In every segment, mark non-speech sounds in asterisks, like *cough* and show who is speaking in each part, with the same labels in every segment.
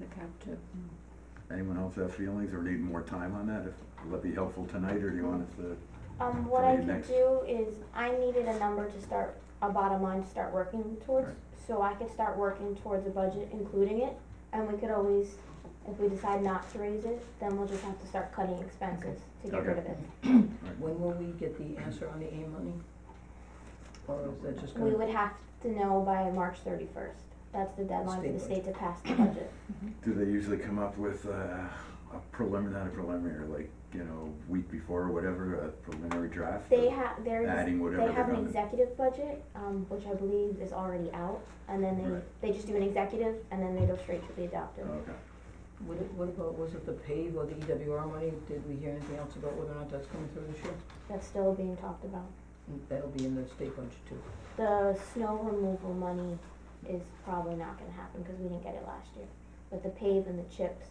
Speaker 1: the cab too.
Speaker 2: Anyone else have feelings or need more time on that? If- Will that be helpful tonight, or do you want us to?
Speaker 3: Um, what
Speaker 2: So
Speaker 3: I
Speaker 2: you
Speaker 3: could
Speaker 2: next.
Speaker 3: do is, I needed a number to start, a bottom line to start working towards,
Speaker 2: Right.
Speaker 3: so I could start working towards a budget, including it, and we could always, if we decide not to raise it, then we'll just have to start cutting expenses to get
Speaker 2: Okay.
Speaker 3: rid of it.
Speaker 4: When will we get the answer on the A money? Or is that just
Speaker 3: We
Speaker 4: gonna,
Speaker 3: would have to know by March thirty-first, that's the deadline for the
Speaker 4: State
Speaker 3: state to pass the
Speaker 2: *coughs*
Speaker 3: budget.
Speaker 2: Do they usually come up with uh, a preliminary, not a preliminary, like you know, week before or whatever, a preliminary draft?
Speaker 3: They
Speaker 2: of
Speaker 3: have, there's.
Speaker 2: adding whatever
Speaker 3: They
Speaker 2: they're
Speaker 3: have an
Speaker 2: going to.
Speaker 3: executive budget, um, which I believe is already out, and then
Speaker 2: Right.
Speaker 3: they, they just do an executive, and then they go straight to the adoptive.
Speaker 2: Oh, Okay.
Speaker 4: what, it- what about, was it the PAVE E or the EWR money? Did we hear anything else about whether or not that's coming through this year?
Speaker 3: That's still being talked about.
Speaker 4: Mm, That'll be in the state budget too.
Speaker 3: The snow removal money is probably not gonna happen, cause we didn't get it last year, but the pave and the chips,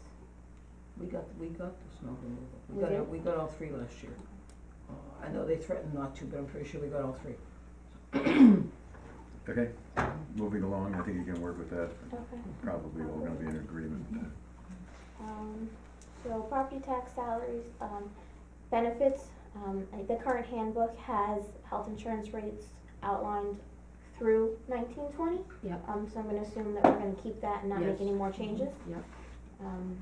Speaker 4: We got, we got the snow removal.
Speaker 3: We
Speaker 4: We got,
Speaker 3: did?
Speaker 4: we got all three last year. Uh, I know they threatened not to, but I'm pretty sure we got all *laughs* three.
Speaker 2: Okay. Moving along, I think you can work with that.
Speaker 3: okay.
Speaker 2: Probably all going to be in agreement. uh,
Speaker 3: Um, so property tax salaries, um, benefits, um, I- the current handbook has health insurance rates outlined through nineteen twenty.
Speaker 1: Yep.
Speaker 3: Um, so I'm gonna assume that we're gonna keep that and not make
Speaker 1: Yes. Mm-hmm.
Speaker 3: any more changes.
Speaker 1: Yep.
Speaker 3: Um,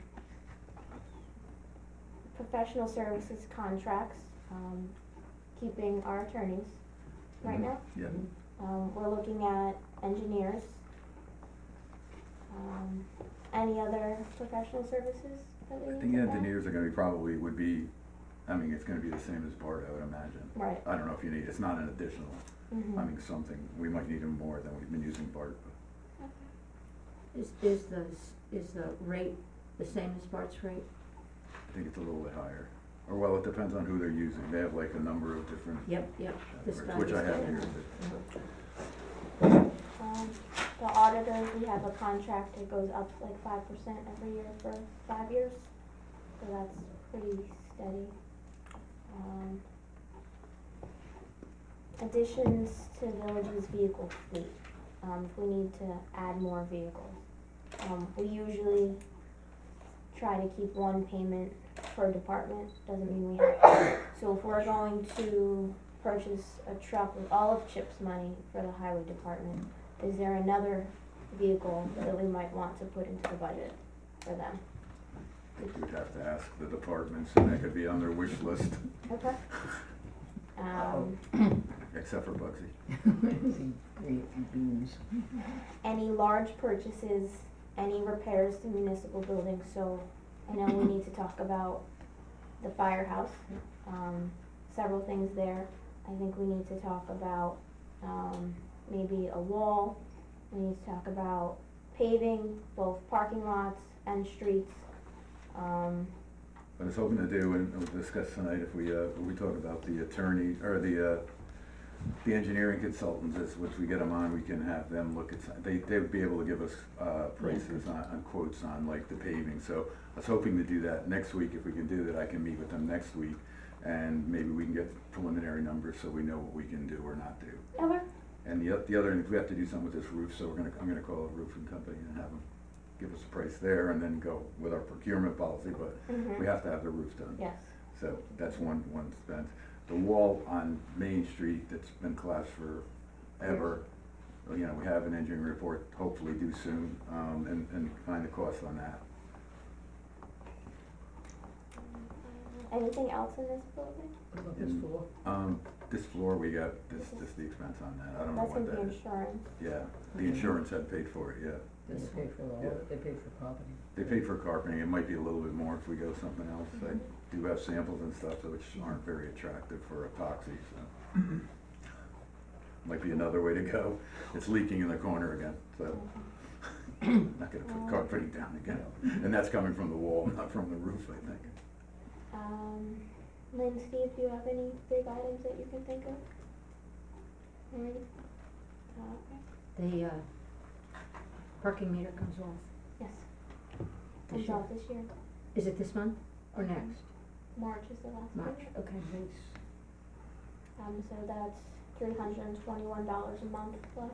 Speaker 3: professional services contracts, um, keeping our attorneys right
Speaker 2: Mhm.
Speaker 3: now.
Speaker 2: Yeah.
Speaker 3: Um, we're looking at engineers. Um, any other professional services that we
Speaker 2: I
Speaker 3: need
Speaker 2: think
Speaker 3: to add?
Speaker 2: engineers are going to be probably would be. I mean, it's going to be the same as BART, I would imagine.
Speaker 3: Right,
Speaker 2: I don't know if you need. It's not an additional.
Speaker 3: mhm.
Speaker 2: I mean, something we might need them more than we've been using BART.
Speaker 1: Is, is the, s- is the rate the same as Bart's rate?
Speaker 2: But I think it's a little bit higher. Or well, it depends on who they're using. They have like a number of different.
Speaker 1: Yep, yep. This
Speaker 2: categories,
Speaker 1: guy,
Speaker 2: Which
Speaker 1: this
Speaker 2: I have
Speaker 1: guy.
Speaker 2: here.
Speaker 3: Um, the auditors, we have a contract that goes up like five percent every year for five years, so that's pretty steady. Um, additions to villages vehicle fleet, um, if we need to add more vehicles. Um, we usually try to keep one payment per department, doesn't mean we have to. So if we're going to purchase a truck with all of CHIP's money for the highway department, is there another vehicle that we might want to put into the budget for them?
Speaker 2: I think you'd have to ask the departments, and that could be on their wish list, *laughs*
Speaker 3: Okay. Um,
Speaker 2: except for Bugsy.
Speaker 4: See, green beans.
Speaker 3: any large purchases, any repairs to municipal buildings, so I know we need to talk about the firehouse, um, several things there. I think we need to talk about, um, maybe a wall, we need to talk about paving, both parking lots and streets. Um,
Speaker 2: What I was hoping to do, and we'll discuss tonight, if we, uh, we talk about the attorney, or the, uh, the engineering consultants, is, which we get them on, we can have them look at, some- they, they would be able to give us, uh, prices on, on quotes on like the paving, so I was hoping to do that next week, if we can do that, I can meet with them next week, and maybe we can get preliminary numbers, so we know what we can do or not do.
Speaker 3: okay,
Speaker 2: And the, oth- the other, if we have to do something with this roof, so we're gonna, I'm gonna call a roofing company and have them give us a price there and then go with our procurement policy, but we
Speaker 3: mhm,
Speaker 2: have to have the roof done.
Speaker 3: yes,
Speaker 2: So that's one, one expense. The wall on Main Street that's been collapsed forever, well, you know, we have an engineering report, hopefully due soon, um, and, and find the cost on that.
Speaker 3: anything else in this building?
Speaker 4: What about this
Speaker 2: Mm.
Speaker 4: floor?
Speaker 2: Um, this floor, we got, this, this the expense on that, I don't know
Speaker 3: That's
Speaker 2: what
Speaker 3: gonna be
Speaker 2: that is.
Speaker 3: insurance,
Speaker 2: Yeah, the insurance had paid for it, yeah.
Speaker 4: They pay for all,
Speaker 2: Yeah.
Speaker 4: they pay for property.
Speaker 2: They paid for carpeting, it might be a little bit more if we go something else. I do have samples and stuff though, which aren't very attractive for epoxy, so. Might be another way to go. It's leaking in the corner again, so not gonna put carpeting down again. And that's coming from the wall, not from the roof, I think.
Speaker 3: Um, Lynn, Steve, do you have any big items that you can think of? Any? Uh, okay.
Speaker 1: The, uh, parking meter comes off.
Speaker 3: Yes,
Speaker 1: this
Speaker 3: comes
Speaker 1: year.
Speaker 3: off this year.
Speaker 1: Is it this month or next?
Speaker 3: March is the last
Speaker 1: March,
Speaker 3: payment.
Speaker 1: okay.
Speaker 3: Um, so that's three hundred and twenty-one dollars a month plus.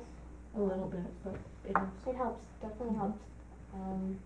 Speaker 1: A little bit, but it is.
Speaker 2: Mm-hmm.
Speaker 3: It helps, definitely
Speaker 1: Mhm.
Speaker 3: helps. Um,